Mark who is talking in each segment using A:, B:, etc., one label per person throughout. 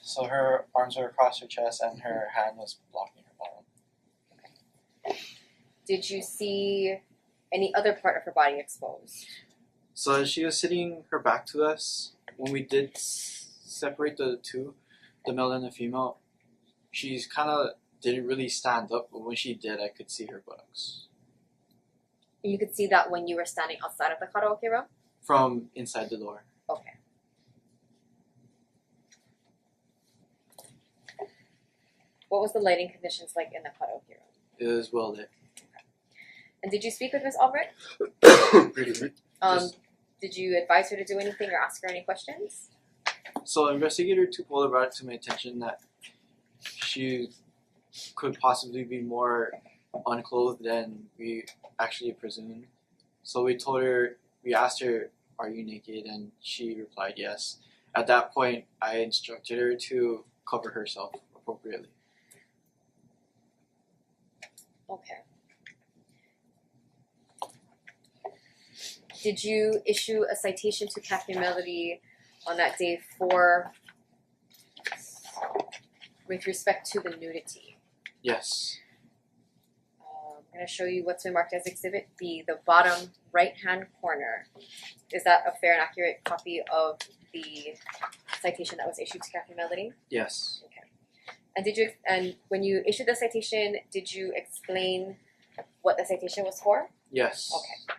A: so her arms were across her chest and her hand was blocking her bottom.
B: Did you see any other part of her body exposed?
C: So as she was sitting her back to us, when we did s- separate the two, the male and the female, she's kind of didn't really stand up, but when she did, I could see her buttocks
B: You could see that when you were standing outside of the karaoke room.
C: from inside the door.
B: Okay. What was the lighting conditions like in the karaoke room?
C: It was well lit.
B: And did you speak with Miss Albright?
D: Excuse me.
B: Um,
C: Yes.
B: Did you advise her to do anything or ask her any questions?
C: So investigator Tupola brought it to my attention that she could possibly be more unclothed than we actually presumed. So we told her, we asked her, "Are you naked?" and she replied, "Yes." At that point, I instructed her to cover herself appropriately.
B: Okay. Did you issue a citation to Captain Melody on that day for with respect to the nudity?
C: Yes.
B: Um, I'm gonna show you what's been marked as Exhibit B, the bottom right-hand corner. Is that a fair and accurate copy of the citation that was issued to Captain Melody?
C: Yes.
B: And did you and when you issued the citation, did you explain what the citation was for?
C: Yes.
B: Okay.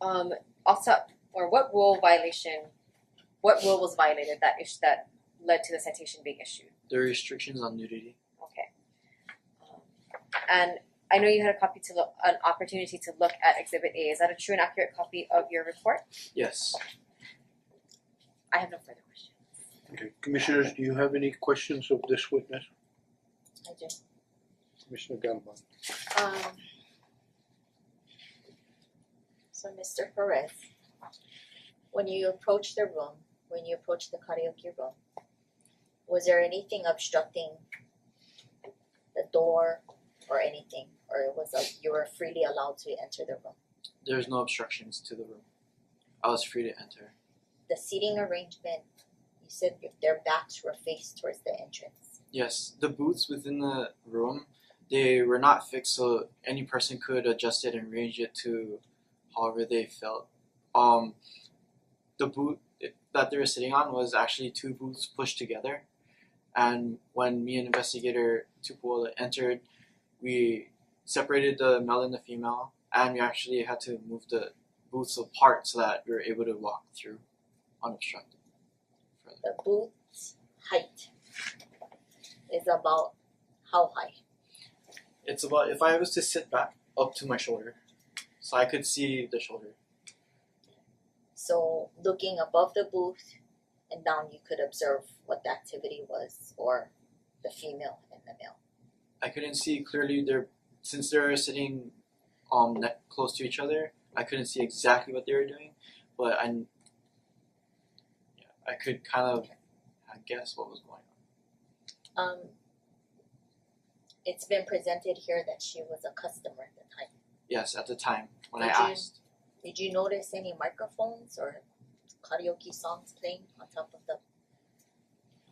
B: Um, also, or what rule violation? What rule was violated that is that led to the citation being issued?
C: The restrictions on nudity.
B: Okay. Um, and I know you had a copy to look, an opportunity to look at Exhibit A. Is that a true and accurate copy of your report?
C: Yes.
B: I have no further questions.
D: Okay, commissioners, do you have any questions of this witness,
B: I do.
D: Commissioner Galvin?
E: Um. So Mister Perez, when you approached the room, when you approached the karaoke room, was there anything obstructing the door or anything, or it was like you were freely allowed to enter the room?
C: There's no obstructions to the room. I was free to enter.
E: The seating arrangement, you said if their backs were faced towards the entrance.
C: Yes, the booths within the room, they were not fixed, so any person could adjust it and range it to however they felt. Um, the boot that they were sitting on was actually two booths pushed together, and when me and investigator Tupola entered, we separated the male and the female, and we actually had to move the booths apart so that we were able to walk through unobstructed. Further.
E: The booth's height is about how high?
C: It's about if I was to sit back up to my shoulder, so I could see the shoulder.
E: So looking above the booth and down, you could observe what the activity was, or the female and the male.
C: I couldn't see clearly their since they were sitting um ne- close to each other. I couldn't see exactly what they were doing, but I kn- yeah, I could kind of I guess what was going on.
E: Um, it's been presented here that she was a customer at the time.
C: Yes, at the time when
E: Did
C: I
E: you-
C: asked.
E: Did you notice any microphones or karaoke songs playing on top of the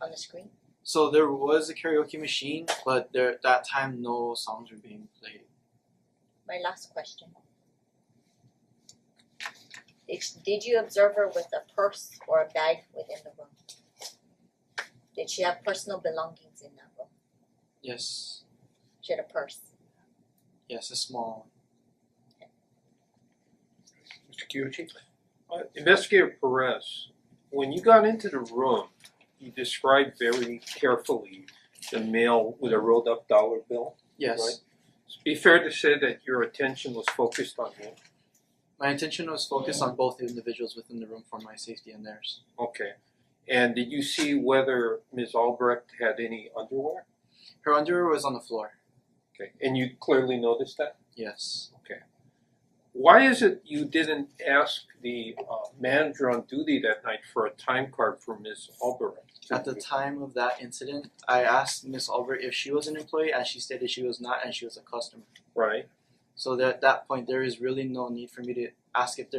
E: on the screen?
C: So there was a karaoke machine, but there at that time no songs were being played.
E: My last question. Did, did you observe her with a purse or a bag within the room? Did she have personal belongings in that room?
C: Yes,
E: She had a purse.
C: yes, a small
D: Mister Kyuchi?
F: Uh, Investigator Perez, when you got into the room, you described very carefully the male with a rolled up dollar bill.
C: Yes.
F: Right. It'd be fair to say that your attention was focused on him.
C: My intention was focused on both individuals within the room for my safety and theirs.
F: Okay. And did you see whether Ms. Albrecht had any underwear?
C: Her underwear was on the floor.
F: Okay. And you clearly noticed that?
C: Yes.
F: Why is it you didn't ask the uh, manager on duty that night for a time card for Ms. Albrecht?
C: At the time of that incident, I asked Miss Albert if she was an employee, and she stated she was not, and she was a customer.
F: Right.
C: So that at that point, there is really no need for me to ask if they're